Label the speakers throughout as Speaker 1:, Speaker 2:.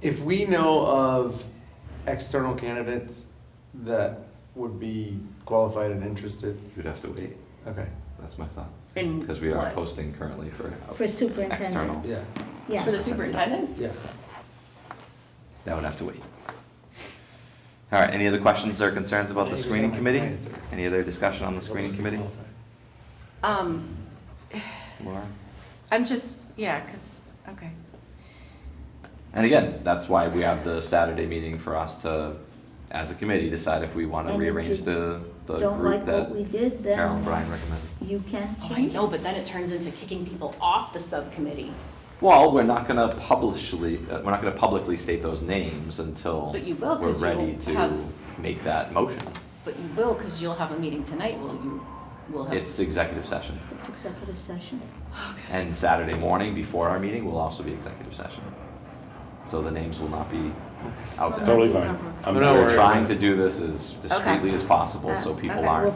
Speaker 1: If we know of external candidates that would be qualified and interested,
Speaker 2: You'd have to wait,
Speaker 1: okay,
Speaker 2: that's my thought.
Speaker 3: And
Speaker 2: Because we are
Speaker 3: what?
Speaker 2: posting currently for.
Speaker 4: For superintendent.
Speaker 2: External.
Speaker 1: yeah,
Speaker 4: Yeah.
Speaker 3: For the superintendent?
Speaker 1: yeah.
Speaker 2: That would have to wait. All right, any other questions or concerns about
Speaker 1: Yeah,
Speaker 2: the
Speaker 1: you just
Speaker 2: screening
Speaker 1: had my
Speaker 2: committee?
Speaker 1: clients are-
Speaker 2: Any other discussion on the screening committee?
Speaker 3: Um,
Speaker 2: Laura?
Speaker 3: I'm just, yeah, because, okay.
Speaker 2: And again, that's why we have the Saturday meeting for us to, as a committee, decide if we want to
Speaker 4: And if
Speaker 2: rearrange
Speaker 4: you
Speaker 2: the, the
Speaker 4: Don't like
Speaker 2: group
Speaker 4: what
Speaker 2: that
Speaker 4: we did,
Speaker 2: Carol and
Speaker 4: then
Speaker 2: Brian recommended.
Speaker 4: you can
Speaker 3: Oh, I
Speaker 4: change.
Speaker 3: know, but then it turns into kicking people off the subcommittee.
Speaker 2: Well, we're not gonna publicly, uh, we're not gonna publicly state those names until
Speaker 3: But you will, 'cause
Speaker 2: We're ready to
Speaker 3: you'll have-
Speaker 2: make that motion.
Speaker 3: But you will, because you'll have a meeting tonight, will you? Will have.
Speaker 2: It's executive session.
Speaker 4: It's executive session.
Speaker 3: Okay.
Speaker 2: And Saturday morning before our meeting will also be executive session. So the names will not be out there.
Speaker 5: Totally fine. I'm
Speaker 1: No,
Speaker 2: We're
Speaker 1: worry.
Speaker 2: trying to do this as discreetly
Speaker 3: Okay.
Speaker 2: as possible so
Speaker 3: Uh,
Speaker 2: people
Speaker 3: okay.
Speaker 4: We're
Speaker 2: aren't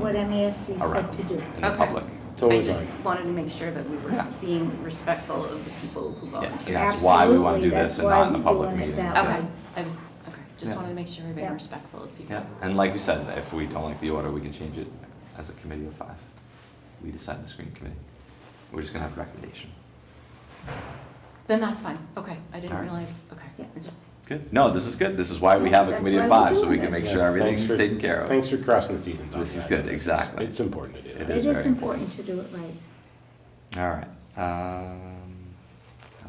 Speaker 2: thrown
Speaker 4: what MASC said
Speaker 2: around
Speaker 4: to do.
Speaker 2: in the
Speaker 3: Okay.
Speaker 2: public.
Speaker 5: Totally
Speaker 3: I just
Speaker 5: fine.
Speaker 3: wanted to make sure that we were
Speaker 2: Yeah.
Speaker 3: being respectful of the people who
Speaker 2: Yeah, and
Speaker 3: volunteered.
Speaker 2: that's why we want to do
Speaker 4: Absolutely,
Speaker 2: this
Speaker 4: that's
Speaker 2: and
Speaker 4: why
Speaker 2: not in a
Speaker 4: we're
Speaker 2: public
Speaker 4: doing it
Speaker 2: meeting.
Speaker 4: that
Speaker 2: Yeah.
Speaker 4: way.
Speaker 3: Okay, I was, okay, just
Speaker 2: Yeah.
Speaker 3: wanted to make sure we're being
Speaker 4: Yeah.
Speaker 3: respectful of people.
Speaker 2: Yeah, and like we said, if we don't like the order, we can change it as a committee of five. We decide the screening committee. We're just gonna have a recommendation.
Speaker 3: Then that's fine, okay, I didn't
Speaker 2: All right.
Speaker 3: realize, okay,
Speaker 4: Yeah.
Speaker 3: I just,
Speaker 2: Good. No, this is good. This is why we have a
Speaker 4: That's
Speaker 2: committee of
Speaker 4: why we're
Speaker 2: five, so we
Speaker 4: doing
Speaker 2: can
Speaker 4: this.
Speaker 2: make
Speaker 5: Yeah,
Speaker 2: sure everything's
Speaker 5: thanks for-
Speaker 2: taken care of.
Speaker 5: Thanks for crossing the Ts and dotting
Speaker 2: This is
Speaker 5: the Is.
Speaker 2: good,
Speaker 5: It's-
Speaker 2: exactly.
Speaker 5: It's important to do
Speaker 2: It
Speaker 5: that.
Speaker 2: is
Speaker 4: It
Speaker 2: very
Speaker 4: is
Speaker 2: important.
Speaker 4: important to do it right.
Speaker 2: All right. Um,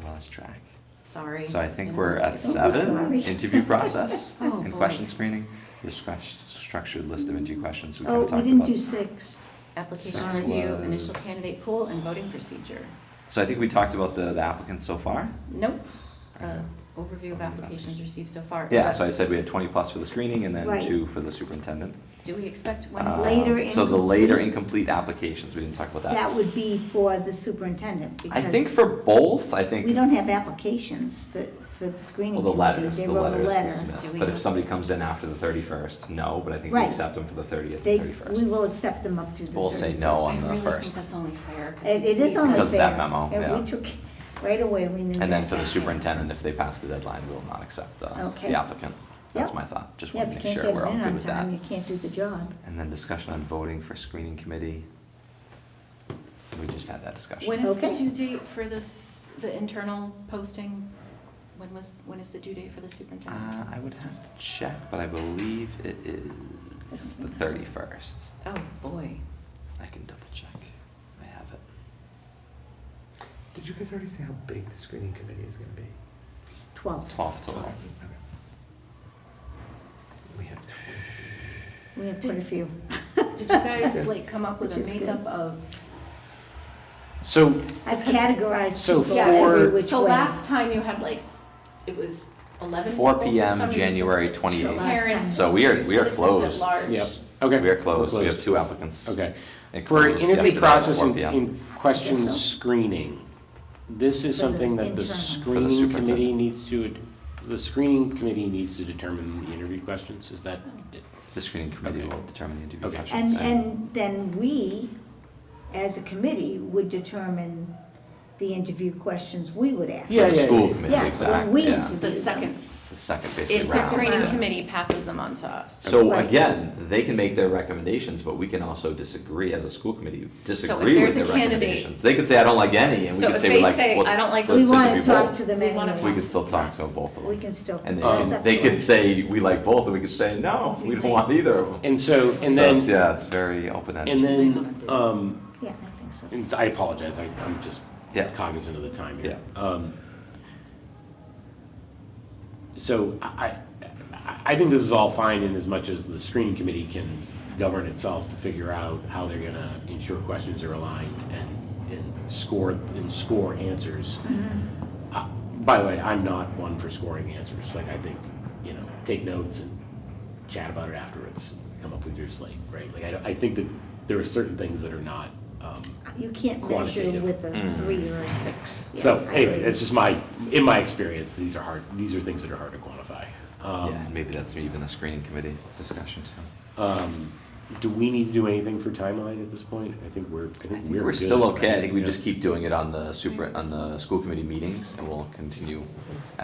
Speaker 2: I lost track.
Speaker 3: sorry.
Speaker 2: So I think
Speaker 3: Didn't
Speaker 2: we're
Speaker 3: wanna
Speaker 2: at
Speaker 3: skip.
Speaker 4: Don't be
Speaker 2: seven,
Speaker 4: Oh, sorry.
Speaker 2: interview process
Speaker 3: Oh,
Speaker 2: and
Speaker 3: boy.
Speaker 2: question screening. The scrus- structured list of interview questions we kind
Speaker 4: Oh,
Speaker 2: of
Speaker 4: we
Speaker 2: talked
Speaker 4: didn't do
Speaker 2: about.
Speaker 4: six.
Speaker 3: Application
Speaker 2: Six
Speaker 3: review, initial
Speaker 2: was-
Speaker 3: candidate pool, and voting procedure.
Speaker 2: So I think we talked about the the applicants so far.
Speaker 3: Nope. Uh,
Speaker 2: Okay.
Speaker 3: Overview of applications received so far. Is
Speaker 2: Yeah,
Speaker 3: that-
Speaker 2: so I said we had twenty plus for the screening and then
Speaker 4: Right.
Speaker 2: two for the superintendent.
Speaker 3: Do we expect
Speaker 2: Um,
Speaker 3: Wednesday?
Speaker 4: Later
Speaker 2: So the later incomplete
Speaker 4: incomplete.
Speaker 2: applications, we didn't talk about
Speaker 4: That
Speaker 2: that.
Speaker 4: would be for the superintendent
Speaker 2: I think
Speaker 4: because
Speaker 2: for both, I think,
Speaker 4: we don't have applications for, for the
Speaker 2: well,
Speaker 4: screening
Speaker 2: the
Speaker 4: committee.
Speaker 2: letters,
Speaker 4: They
Speaker 2: the
Speaker 4: wrote a
Speaker 2: letters. this-
Speaker 4: letter.
Speaker 3: Do we
Speaker 2: But if
Speaker 3: have-
Speaker 2: somebody comes in after the thirty-first, no, but I think we
Speaker 4: Right.
Speaker 2: accept them for the thirtieth
Speaker 4: They,
Speaker 2: and thirty-first.
Speaker 4: we will accept them up to the 31st.
Speaker 2: We'll say no oh, on
Speaker 3: I
Speaker 2: the
Speaker 3: really think
Speaker 2: first.
Speaker 3: that's only fair. 'cause
Speaker 4: It, it is
Speaker 3: we
Speaker 4: only fair.
Speaker 3: said-
Speaker 2: Because of that memo,
Speaker 4: And
Speaker 2: yeah.
Speaker 4: we took, right away, we knew.
Speaker 2: And then
Speaker 4: that.
Speaker 2: for the superintendent, if they pass the deadline, we'll not accept the,
Speaker 4: Okay.
Speaker 2: the applicant. That's
Speaker 4: Yep.
Speaker 2: my thought, just
Speaker 4: Yeah,
Speaker 2: want to
Speaker 4: if
Speaker 2: make
Speaker 4: you can't
Speaker 2: sure
Speaker 4: get
Speaker 2: we're
Speaker 4: it
Speaker 2: all
Speaker 4: in
Speaker 2: good
Speaker 4: on
Speaker 2: with that.
Speaker 4: time, you can't do the job.
Speaker 2: And then discussion on voting for screening committee. We just had that discussion.
Speaker 3: When is the
Speaker 4: Okay.
Speaker 3: due date for this, the internal posting? When was, when is the due date for the
Speaker 2: Uh,
Speaker 3: superintendent?
Speaker 2: I would have to check, but I believe it is the thirty-first.
Speaker 3: Oh, boy.
Speaker 2: I can double check. I have it.
Speaker 1: Did you guys already say how big the screening committee is gonna be?
Speaker 4: Twelve.
Speaker 2: Twelve total.
Speaker 1: Okay. We have twenty-three.
Speaker 4: We have quite a few.
Speaker 3: Did you guys like come up with
Speaker 4: Which
Speaker 3: a
Speaker 4: is good.
Speaker 3: makeup of?
Speaker 5: So,
Speaker 4: I've categorized
Speaker 5: So
Speaker 4: people
Speaker 5: Yeah,
Speaker 4: every
Speaker 5: for-
Speaker 4: which way.
Speaker 3: So last time you had like, it was eleven.
Speaker 2: 4
Speaker 3: people for
Speaker 2: PM,
Speaker 3: some reason,
Speaker 2: January
Speaker 3: two
Speaker 2: 28th.
Speaker 3: parents,
Speaker 2: So we are-
Speaker 3: two
Speaker 2: we are
Speaker 3: citizens at
Speaker 2: closed.
Speaker 3: large.
Speaker 5: yep, okay.
Speaker 2: We are closed. We
Speaker 5: We're
Speaker 2: have two applicants.
Speaker 5: Okay.
Speaker 2: It
Speaker 5: For
Speaker 2: closed
Speaker 5: interview
Speaker 2: yesterday at
Speaker 5: process
Speaker 2: 4
Speaker 5: and-
Speaker 2: PM.
Speaker 5: and question
Speaker 4: Yes, sir.
Speaker 5: screening, this is
Speaker 4: For the
Speaker 5: something that the
Speaker 4: internal. For the
Speaker 5: screening committee
Speaker 2: superintendent.
Speaker 5: needs to, the screening committee needs to determine the interview questions, is that?
Speaker 2: The screening committee
Speaker 5: Okay.
Speaker 2: will determine the interview
Speaker 5: Okay.
Speaker 2: questions.
Speaker 4: And, and then we, as a committee, would determine the interview questions we would ask.
Speaker 5: Yeah,
Speaker 2: For the
Speaker 5: yeah,
Speaker 2: school
Speaker 5: yeah.
Speaker 2: committee,
Speaker 4: Yeah, when
Speaker 2: exactly,
Speaker 4: we
Speaker 2: yeah.
Speaker 4: interview
Speaker 3: The second,
Speaker 4: them.
Speaker 2: The second basically round.
Speaker 3: is the screening
Speaker 2: yeah.
Speaker 3: committee passes them on to us.
Speaker 2: So
Speaker 4: Right.
Speaker 2: again, they can make their recommendations, but we can also disagree as a school committee,
Speaker 3: So if
Speaker 2: disagree with
Speaker 3: there's a
Speaker 2: their
Speaker 3: candidate-
Speaker 2: recommendations. They could say, I don't like any, and we
Speaker 3: So
Speaker 2: could
Speaker 3: if
Speaker 2: say, we
Speaker 3: they
Speaker 2: like,
Speaker 3: say,
Speaker 2: let's,
Speaker 3: "I don't like
Speaker 2: let's
Speaker 4: We wanna
Speaker 2: interview
Speaker 4: talk
Speaker 2: both."
Speaker 4: to them
Speaker 3: We wanna
Speaker 4: anyway.
Speaker 2: We could still talk to both of them.
Speaker 4: We can still,
Speaker 2: And
Speaker 4: that's
Speaker 2: they,
Speaker 4: up
Speaker 2: they
Speaker 4: to
Speaker 2: could
Speaker 4: us.
Speaker 2: say, we like both, and we could say, no,
Speaker 3: We
Speaker 2: we don't
Speaker 3: might.
Speaker 2: want either of them.
Speaker 5: And so, and
Speaker 2: So
Speaker 5: then,
Speaker 2: it's, yeah, it's very
Speaker 5: and
Speaker 2: open-ended.
Speaker 5: then, um,
Speaker 4: Yeah, I think so.
Speaker 5: And I apologize, I, I'm just
Speaker 2: Yeah.
Speaker 5: cognizant of the time here. Um, So I, I, I think this is all fine in as much as the screening committee can govern itself to figure out how they're gonna ensure questions are aligned and, and score, and score answers. Uh, By the way, I'm not one for scoring answers, like I think, you know, take notes and chat about it afterwards, come up with your slate, right? Like I, don't- I think that there are certain things that are not, um,
Speaker 4: You can't measure
Speaker 5: Quantitative.
Speaker 4: with a
Speaker 2: Mm.
Speaker 4: three or a six. Yeah,
Speaker 5: so
Speaker 4: I
Speaker 5: anyway,
Speaker 4: agree.
Speaker 5: that's just my, in my experience, these are hard, these are things that are hard to quantify. Um,
Speaker 2: Yeah, and maybe that's even the screening committee discussion too.
Speaker 5: um, Do we need to do anything for timeline at this point? I think we're, I
Speaker 2: I
Speaker 5: think
Speaker 2: think
Speaker 5: we're
Speaker 2: we're still
Speaker 5: good,
Speaker 2: okay, I
Speaker 5: right?
Speaker 2: think we
Speaker 5: Yeah.
Speaker 2: just keep doing it on the super, on the school committee meetings, and we'll continue